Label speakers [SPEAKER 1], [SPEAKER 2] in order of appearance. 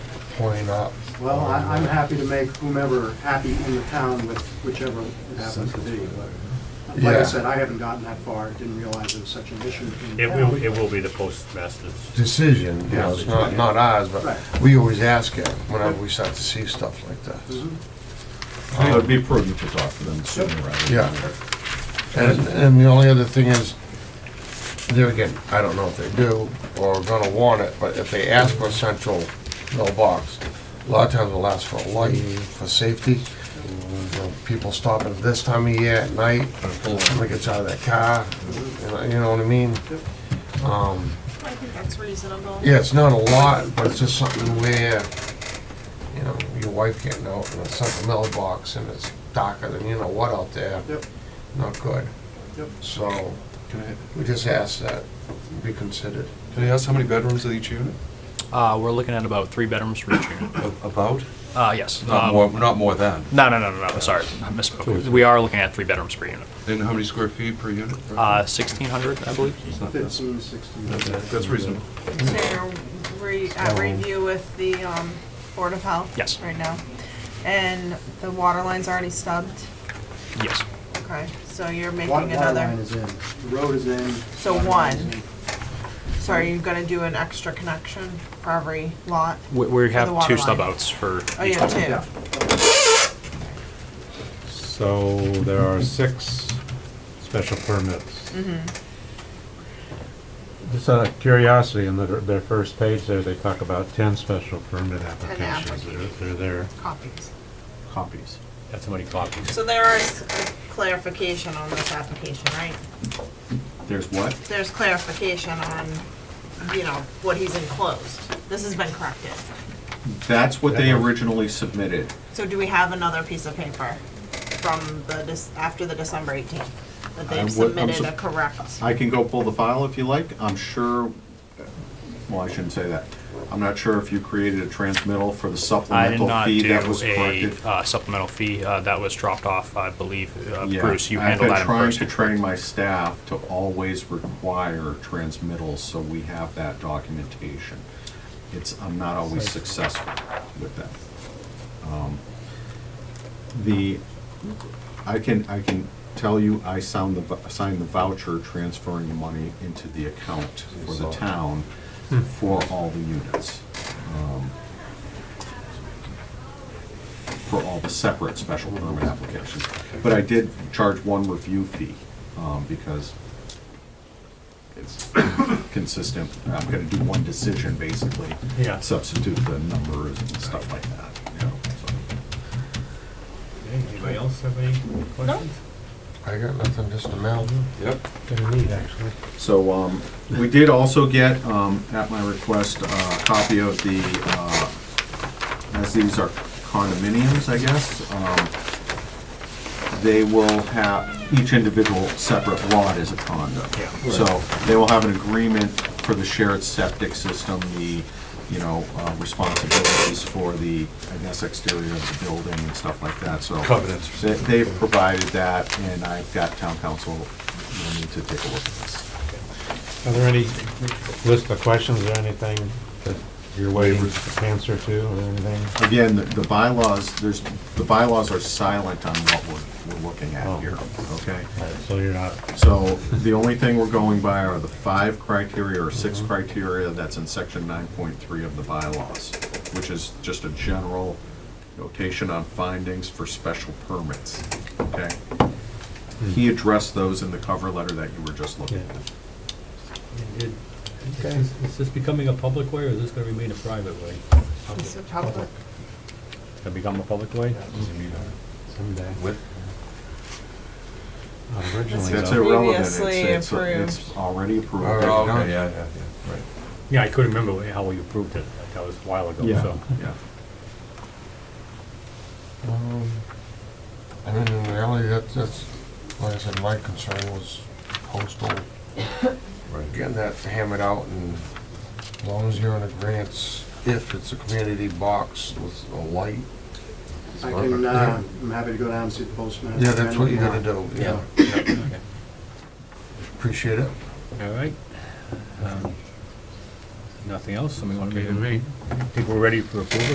[SPEAKER 1] why not?
[SPEAKER 2] Well, I- I'm happy to make whomever happy in the town with whichever it happens to be. but Like
[SPEAKER 1] Yeah.
[SPEAKER 2] I said, I haven't gotten that far, didn't realize it was such an issue in
[SPEAKER 3] It will,
[SPEAKER 2] town.
[SPEAKER 3] it will be the postmaster's.
[SPEAKER 1] Decision, you know, it's not, not ours, but
[SPEAKER 2] Right.
[SPEAKER 1] we always ask it whenever we start to see stuff like that.
[SPEAKER 2] Mhm.
[SPEAKER 4] It would be prudent to talk to them sooner rather than
[SPEAKER 1] Yeah.
[SPEAKER 4] later.
[SPEAKER 1] And, and the only other thing is, there again, I don't know if they do or are gonna want it, but if they ask for a central mailbox, a lot of times it'll ask for a light for safety. You know, People stopping this time of year at night, somebody gets out of their car, you know- you know what I mean? Um,
[SPEAKER 5] I think that's reasonable.
[SPEAKER 1] Yeah, it's not a lot, but it's just something where, you know, your wife getting out in a central mailbox and it's darker than you know what out there,
[SPEAKER 2] Yep,
[SPEAKER 1] not good.
[SPEAKER 2] yep.
[SPEAKER 1] So,
[SPEAKER 6] Can I,
[SPEAKER 1] we just ask that be considered.
[SPEAKER 6] can I ask how many bedrooms are each unit?
[SPEAKER 7] Uh, we're looking at about three bedrooms for each unit.
[SPEAKER 6] A- About?
[SPEAKER 7] Uh, yes.
[SPEAKER 6] Not
[SPEAKER 7] um,
[SPEAKER 6] more, not more than.
[SPEAKER 7] No, no, no, no, no, sorry, I misspoke. We are looking at three bedrooms per unit.
[SPEAKER 6] And how many square feet per unit?
[SPEAKER 7] Uh, sixteen hundred, I believe.
[SPEAKER 6] It's not that-
[SPEAKER 2] 15, 16.
[SPEAKER 6] That's reasonable.
[SPEAKER 5] So you're re, at review with the, um, Board of Health?
[SPEAKER 7] Yes.
[SPEAKER 5] Right now? And the water line's already stubbed?
[SPEAKER 7] Yes.
[SPEAKER 5] Okay, so you're
[SPEAKER 2] Wa-
[SPEAKER 5] making
[SPEAKER 2] Water line
[SPEAKER 5] another,
[SPEAKER 2] is in, the road is in.
[SPEAKER 5] So
[SPEAKER 2] water line is
[SPEAKER 5] one.
[SPEAKER 2] in.
[SPEAKER 5] so are you gonna do an extra connection for every lot?
[SPEAKER 7] We, we
[SPEAKER 5] the
[SPEAKER 7] have
[SPEAKER 5] water
[SPEAKER 7] two
[SPEAKER 5] line.
[SPEAKER 7] stub outs for
[SPEAKER 5] Oh,
[SPEAKER 7] each
[SPEAKER 5] yeah,
[SPEAKER 7] one.
[SPEAKER 2] Yeah.
[SPEAKER 5] two.
[SPEAKER 8] So there are six special permits.
[SPEAKER 5] Mm-hmm.
[SPEAKER 8] Just out of curiosity, in their, their first page there, they talk about ten special permit applications. They're, they're there.
[SPEAKER 5] Copies.
[SPEAKER 8] Copies.
[SPEAKER 7] That's how many copies.
[SPEAKER 5] So there is clarification on this application, right?
[SPEAKER 4] There's what?
[SPEAKER 5] There's clarification on, you know, what he's enclosed. This has been corrected.
[SPEAKER 4] That's what they originally submitted.
[SPEAKER 5] So do we have another piece of paper from the, dis- after the December 18th? That
[SPEAKER 4] I
[SPEAKER 5] they've
[SPEAKER 4] would- I'm
[SPEAKER 5] submitted
[SPEAKER 4] so-
[SPEAKER 5] a correct,
[SPEAKER 4] I can go pull the file if you like. I'm sure, well, I shouldn't say that. I'm not sure if you created a transmittal for the
[SPEAKER 7] I did
[SPEAKER 4] supplemental
[SPEAKER 7] not
[SPEAKER 4] fee that
[SPEAKER 7] do
[SPEAKER 4] was
[SPEAKER 7] a
[SPEAKER 4] corrected.
[SPEAKER 7] uh, supplemental fee, uh, that was dropped off, I believe, uh,
[SPEAKER 4] Yeah,
[SPEAKER 7] Bruce, you handled that in
[SPEAKER 4] I've
[SPEAKER 7] person.
[SPEAKER 4] been trying to train my staff to always require transmittals, so we have that documentation. It's, I'm not always successful with that. Um, The, I can, I can tell you, I sound the, vou- signed the voucher transferring the money into the account for the town for all the units. um, For all the separate special permit applications. But I did charge one review fee, um, because it's consistent. I'm gonna do one decision, basically.
[SPEAKER 7] Yeah.
[SPEAKER 4] Substitute the numbers and stuff like that, you know, so.
[SPEAKER 3] Anybody else have any questions?
[SPEAKER 1] I got nothing, just a mail.
[SPEAKER 6] Yep.
[SPEAKER 4] So, um, we did also get, um, at my request, a copy of the, uh, as these are condominiums, I guess, um, they will have, each individual separate lot is a condo.
[SPEAKER 7] Yeah.
[SPEAKER 4] So, they will have an agreement for the shared septic system, the, you know, uh, responsibilities for the, I guess, exterior of the building and stuff like that, so.
[SPEAKER 6] Covenants.
[SPEAKER 4] They- They've provided that, and I've got town council, you need to take a look at this.
[SPEAKER 8] Are there any list of questions or anything that you're waiting to answer to or anything?
[SPEAKER 4] Again, the- the bylaws, there's, the bylaws are silent on what we're, we're looking at here, okay?
[SPEAKER 8] So you're not,
[SPEAKER 4] So the only thing we're going by are the five criteria or six criteria that's in section nine point three of the bylaws, which is just a general notation on findings for special permits, okay? He addressed those in the cover letter that you were just looking
[SPEAKER 8] yeah.
[SPEAKER 4] at.
[SPEAKER 3] Is this becoming a public way, or is this gonna remain a private way?
[SPEAKER 5] it's a public.
[SPEAKER 3] Gonna become a public way?
[SPEAKER 8] Someday.
[SPEAKER 6] With,
[SPEAKER 8] Originally,
[SPEAKER 4] That's
[SPEAKER 8] though,
[SPEAKER 4] irrelevant, it's,
[SPEAKER 5] Previously
[SPEAKER 4] it's, it's already approved.
[SPEAKER 1] Alright.
[SPEAKER 6] okay, yeah, yeah, yeah, right.
[SPEAKER 3] Yeah, I couldn't remember how we approved it, like, that was a while ago,
[SPEAKER 4] Yeah,
[SPEAKER 3] so.
[SPEAKER 4] yeah.
[SPEAKER 1] Um, I mean, in reality, that, that's, like I said, my concern was postal,
[SPEAKER 6] Right.
[SPEAKER 1] getting that hammered out and as long as you're on a grants, if it's a community box with a light.
[SPEAKER 2] I can, uh, I'm happy to go down and see the postman. uh,
[SPEAKER 1] Yeah, that's what you gotta do, yeah. Appreciate it.
[SPEAKER 3] All right. Um, Nothing else, somebody wanna make a? People ready for approval?